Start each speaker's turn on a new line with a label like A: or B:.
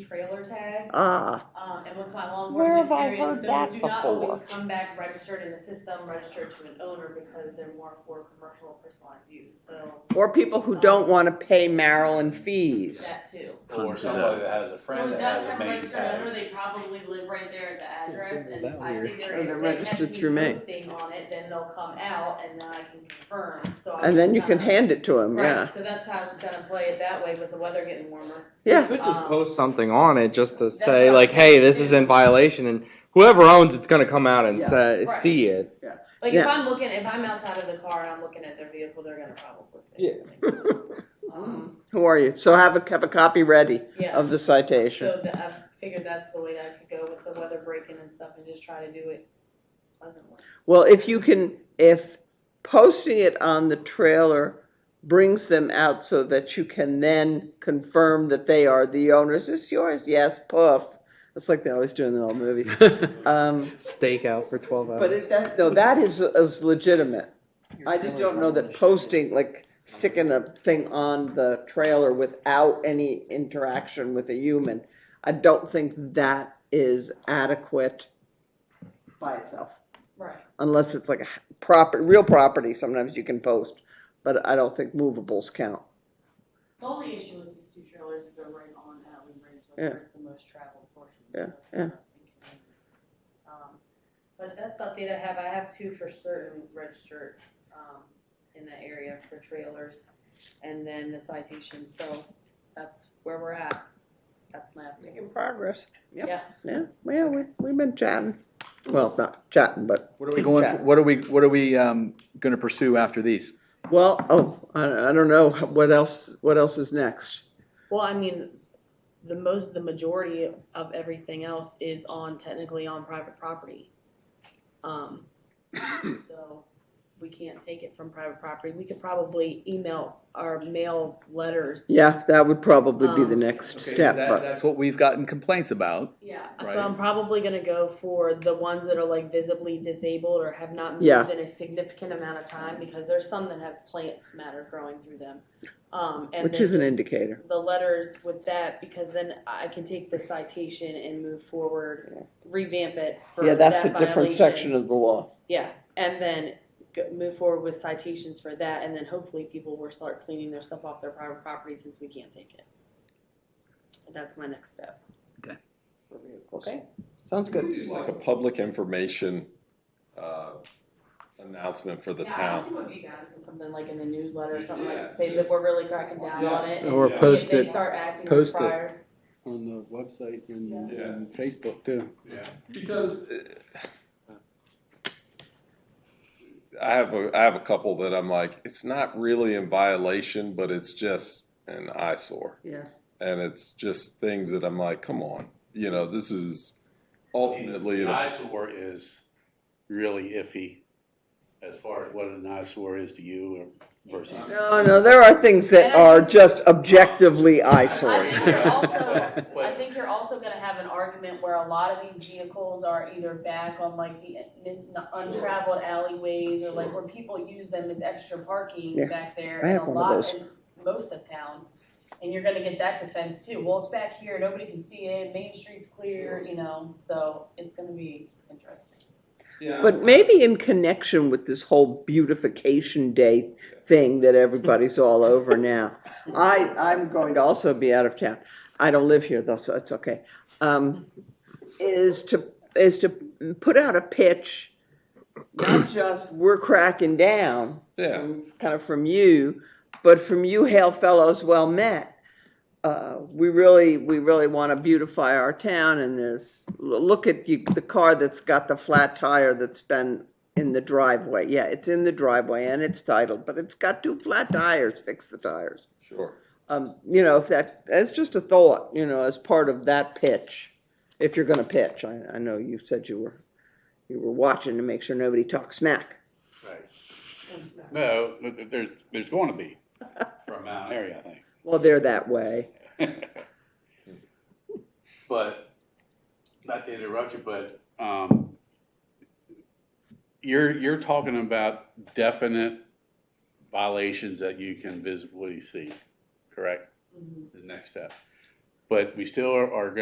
A: trailer tag.
B: Ah,
A: Um, and with my law
B: Where have I
A: enforcement experience,
B: heard that
A: those do not always
B: before?
A: come back registered in the system, registered to an owner because they're more for commercial or personalized use, so
B: or people who don't want to pay Maryland fees.
A: that too.
C: Or
D: Tons of
C: somebody
D: those.
C: that has a friend that has a main
A: So it does have a registered owner,
C: tag.
A: they probably live right there at the
E: It's
A: address,
E: not
A: and
E: that
A: I
E: weird.
A: think
B: Oh,
A: there is,
B: they're
A: they
B: registered
A: actually
B: through me.
A: posting on it, then they'll come out, and then I can confirm, so I.
B: And then
A: was
B: you can
A: kinda-
B: hand it to them, yeah.
A: Right, so that's how I was gonna play it that way, with the weather getting warmer.
B: Yeah.
E: Could just
A: Um,
E: post something on it just to
A: That's
E: say
A: what I
E: like,
A: was saying,
E: hey, this
A: too.
E: is in violation, and whoever owns it's gonna come out and
B: Yeah.
E: say,
A: Right.
E: see it.
A: Like, if
B: Yeah.
A: I'm looking, if I'm outside of the car and I'm looking at their vehicle, they're gonna probably.
E: Yeah.
A: Um,
B: Who are you? So have a, have a copy ready
A: yeah.
B: of the citation.
A: So the, I figured that's the way that I could go with the weather breaking and stuff and just try to do it pleasantly.
B: Well, if you can, if posting it on the trailer brings them out so that you can then confirm that they are the owners, is this yours? Yes, poof. It's like they always do in the old movies. Um,
E: Stakeout for twelve hours.
B: but it, that, no, that is, is legitimate. I just don't know that posting, like sticking a thing on the trailer without any interaction with a human, I don't think that is adequate by itself
A: Right.
B: unless it's like a property, real property, sometimes you can post, but I don't think movables count.
A: The only issue with these two trailers is they're right on Allen Bridge, like
B: Yeah.
A: where it's the most traveled portion. so
B: Yeah,
A: it's
B: yeah.
A: not inconvenient. Um, But that's the update I have, I have two for certain registered, um, in that area for trailers, and then the citation, so that's where we're at. That's my update.
B: progress.
A: Yeah.
B: Yeah, well, we, we've been chatting, well, not chatting, but,
D: What are we going, for- what are we, what are we, um, gonna pursue after these?
B: well, oh, I, I don't know, what else, what else is next?
A: Well, I mean, the most, the majority of everything else is on, technically on private property. Um, so we can't take it from private property. We could probably email our mail letters.
B: Yeah, that would probably be the
A: Um,
B: next
D: Okay,
B: step,
D: that-
B: but,
D: That's what we've gotten complaints about.
A: Yeah,
D: Right.
A: so I'm probably gonna go for the ones that are like visibly disabled or have not
B: Yeah.
A: moved in a significant amount of time because there's some that have plant matter growing through them. Um, and
B: which
A: then
B: is an
A: just-
B: indicator.
A: the letters with that because then I can take the citation and move forward, revamp it for
B: Yeah, that's a
A: that
B: different
A: violation.
B: section of the law.
A: Yeah, and then go, move forward with citations for that, and then hopefully people will start cleaning their stuff off their private property since we can't take it. That's my next step.
B: Okay. Sounds good.
F: do Like a public information uh, announcement for the town.
A: Something like in the newsletter or something
F: Yeah,
A: like, say that
F: just-
A: we're really cracking down on it.
F: Yes.
A: and
F: Or
A: if
F: post
A: they
E: it-
A: start acting
E: post it.
A: prior-
G: on the website and,
F: Yeah.
G: and Facebook too.
F: Because. uh, I have a, I have a couple that I'm like, it's not really in violation, but it's just an eyesore.
B: Yeah.
F: And it's just things that I'm like, come on, you know, this is ultimately.
G: An
F: an aff-
G: eyesore is really iffy as far as what an eyesore is to you or versus.
B: No, no, there are things that are just objectively
A: I
B: eyesores.
A: think you're also, I
G: But-
A: think you're also gonna have an argument where a lot of these vehicles are either back on like the the untraveled alleyways or like where people use them as extra parking
B: Yeah.
A: back there
B: I
A: in
B: have
A: a
B: one of
A: lot
B: those.
A: in most of town. And you're gonna get that defense too, well, it's back here, nobody can see it, Main Street's clear, you know, so it's gonna be interesting.
B: But maybe in connection with this whole beautification day thing that everybody's all over now. I, I'm going to also be out of town. I don't live here though, so it's okay. Um, is to, is to put out a pitch, not just we're cracking down,
F: Yeah.
B: from- kind of from you, but from you, hail fellows, well met. Uh, we really, we really want to beautify our town and there's, l- look at you, the car that's got the flat tire that's been in the driveway. Yeah, it's in the driveway and it's titled, but it's got two flat tires, fix the tires.
F: Sure.
B: Um, you know, if that, that's just a thought, you know, as part of that pitch, if you're going to pitch. I, I know you said you were, you were watching to make sure nobody talks smack.
G: Right. No, but th- there's, there's going to be from Mount Airy, I think.
B: Well, they're that way.
G: But, not to interrupt you, but, um, you're, you're talking about definite
A: Mm-hmm.
G: violations that you can visibly see, correct? The next step. But we still are, are gonna